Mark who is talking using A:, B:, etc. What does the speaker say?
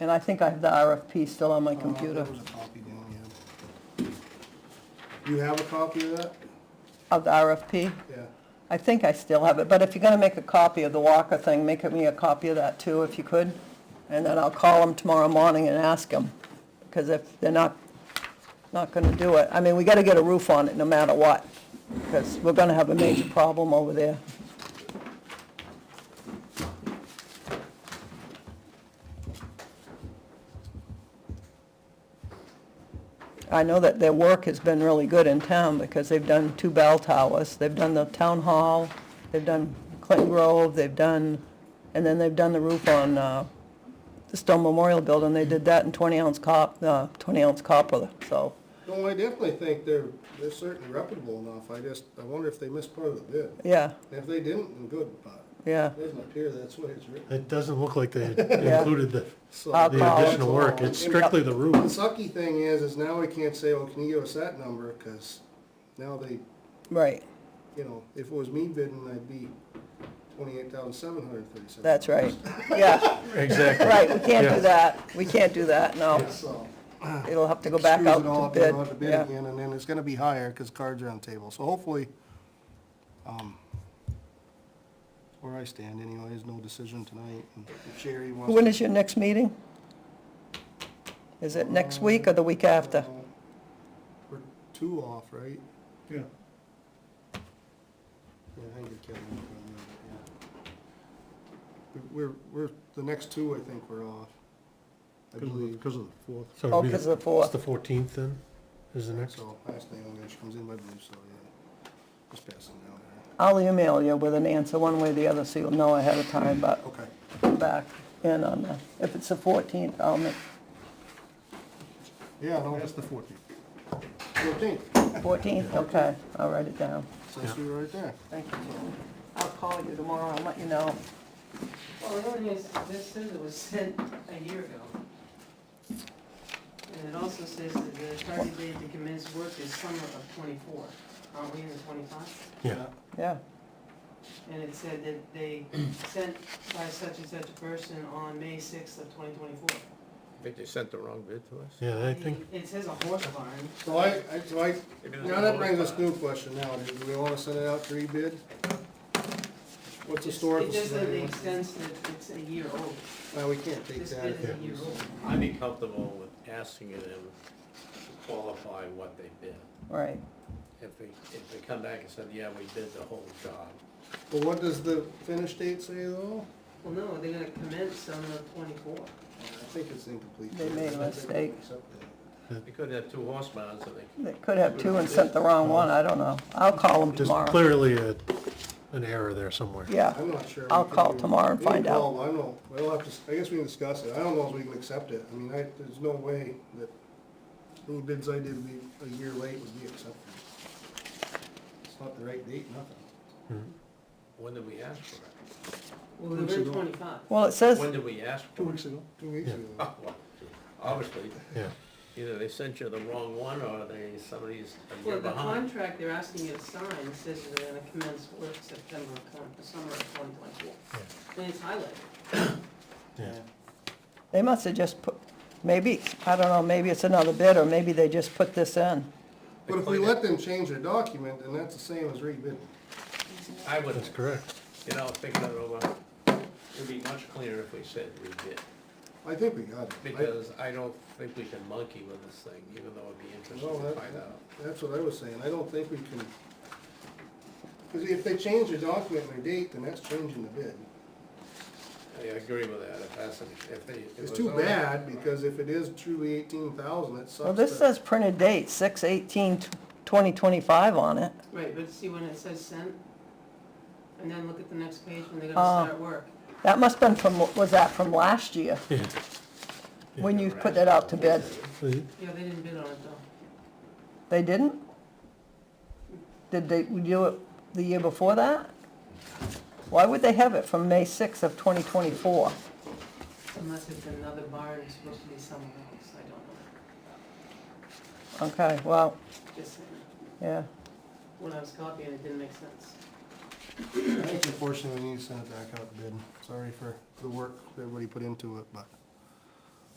A: And I think I have the RFP still on my computer,
B: There was a copy down here. You have a copy of that?
A: of the RFP.
B: Yeah.
A: I think I still have it, but if you're gonna make a copy of the Walker thing, make me a copy of that too, if you could. And then I'll call them tomorrow morning and ask them, because if they're not, not gonna do it, I mean, we gotta get a roof on it no matter what, because we're gonna have a major problem over there. I know that their work has been really good in town because they've done two bell towers. They've done the town hall, they've done Clinton Grove, they've done, and then they've done the roof on uh, the Stone Memorial Building. They did that in 20 ounce cop, uh, 20 ounce copper, so.
B: No, I definitely think they're, they're certainly reputable enough. I just, I wonder if they missed part of the bid.
A: Yeah,
B: And If they didn't, then good, but
A: yeah.
B: it doesn't appear that's what it's written.
C: It doesn't look like they included the,
B: So-
A: I'll
C: the
A: call.
C: additional work, it's strictly the
B: The
C: roof.
B: sucky thing is, is now we can't say, well, can you give us that number? Because now they,
A: Right,
B: you know, if it was me bidding, I'd be twenty-eight thousand seven hundred thirty-seven.
A: that's right. Yeah,
C: Exactly.
A: right, we can't
C: Yeah.
A: do that. We can't do that, no.
B: So.
A: It'll have to go back out
B: Screws it all
A: to
B: up,
A: bid.
B: You'll have to bid
A: Yeah.
B: again, and then it's gonna be higher, because cards are on the table, so hopefully, um, where I stand anyway, is no decision tonight, and if Sherry wants.
A: When
B: to-
A: is your next meeting? Is it next week or the week after?
B: We're two off, right?
C: Yeah.
B: Yeah, I think it can be from there, yeah. We're, we're, the next two, I think, we're off, I believe,
C: Because of the fourth.
A: Oh, because of the fourth.
C: It's the fourteenth then, is the next,
B: so last thing, I'm gonna- she comes in, I believe, so, yeah, just passing down there.
A: I'll email you with an answer one way or the other, so you'll know ahead of time, but
B: Okay.
A: come back in on the, if it's the 14th, I'll make,
B: Yeah, no,
C: that's
B: just
C: the fourteenth.
B: fourteenth,
A: 14th, okay, I'll write it down.
B: says you right there.
A: Thank you. I'll call you tomorrow, I'll let you know.
D: Well, the only is, this says it was sent a year ago. And it also says that the target date to commence work is summer of twenty-four. Aren't we in the twenty-five?
C: Yeah,
A: Yeah,
D: And it said that they sent by such and such a person on May sixth of twenty twenty-four.
E: I think they sent the wrong bid to us.
C: yeah, I think,
D: It says a horse barn.
B: So I, I, so I,
E: Maybe there's
B: now
E: a
B: that brings
E: bonus
B: us
E: on
B: new question now, do we wanna send it out to rebid? What's the historical?
D: It just that
B: scenario?
D: it extends that it's a year old.
B: Well, we can't take
D: This
B: that.
D: bid is
B: if
D: a year
B: it's-
D: old.
E: it. I'd be comfortable with asking them to qualify what they bid.
A: right.
E: If they, if they come back and said, yeah, we bid the whole job.
B: But what does the finish date say though?
D: Well, no, they're gonna commence summer of twenty-four.
B: I think it's incomplete.
A: They made a
B: I think we
A: mistake.
B: accept that.
E: We could have two horse mounds and they,
A: They could have two and sent the wrong one, I don't know. I'll call them
C: there's
A: tomorrow.
C: clearly a, an error there somewhere.
A: Yeah,
B: I'm not sure. we
A: I'll
B: can
A: call
B: do-
A: tomorrow and
B: we can
A: find
B: call, I don't know, we'll have to, s- I guess we can discuss it, I don't know if we can accept it, I mean, I, there's no way that any bids I did be a year late would be accepted. It's not the right date, nothing.
E: when did we ask for it?
D: Well,
B: Weeks
D: they're
B: ago.
D: twenty-five.
A: well, it says,
E: When did we ask for it?
B: ago. Two weeks
C: Yeah.
B: ago.
E: Oh, well, Obviously,
C: Yeah,
E: either they sent you the wrong one or they, somebody's a
D: Well,
E: year
D: the
E: behind.
D: contract they're asking you to sign says that they're gonna commence work September, of twen- summer of twenty twenty-four. And it's highlighted.
C: yeah.
A: they must have just put, maybe, I don't know, maybe it's another bid, or maybe they just put this in.
B: But if we let them change their document, then that's the same as rebid.
E: I would,
C: That's correct.
E: you know, think that over. It'd be much cleaner if we said we bid.
B: I think we got it. I-
E: Because I don't think we can monkey with this thing, even though it'd be
B: No,
E: interesting to
B: that,
E: find out.
B: that's what I was saying, I don't think we can, because if they change their document and their date, then that's changing the bid.
E: I agree with that, if that's, if they. if
B: It's
E: it
B: too
E: was only-
B: bad, because if it is truly eighteen thousand, it sucks.
A: Well, this
B: that-
A: says printed date, 6/18/2025 on it.
D: Right, but see when it says sent? And then look at the next page when they're
A: Oh.
D: gonna start work.
A: That must've been from, was that from last year,
C: Yeah,
A: when you put that out to bid?
C: The-
D: Yeah, they didn't bid on it though.
A: They didn't? Did they do it the year before that? Why would they have it from May 6th of 2024?
D: Unless it's another barn, it's supposed to be somewhere else, I don't
A: Okay, well,
D: know. Just saying.
A: yeah,
D: when I was copying, it didn't make sense.
B: I think unfortunately, we need to send it back out to bid, sorry for the work that everybody put into it, but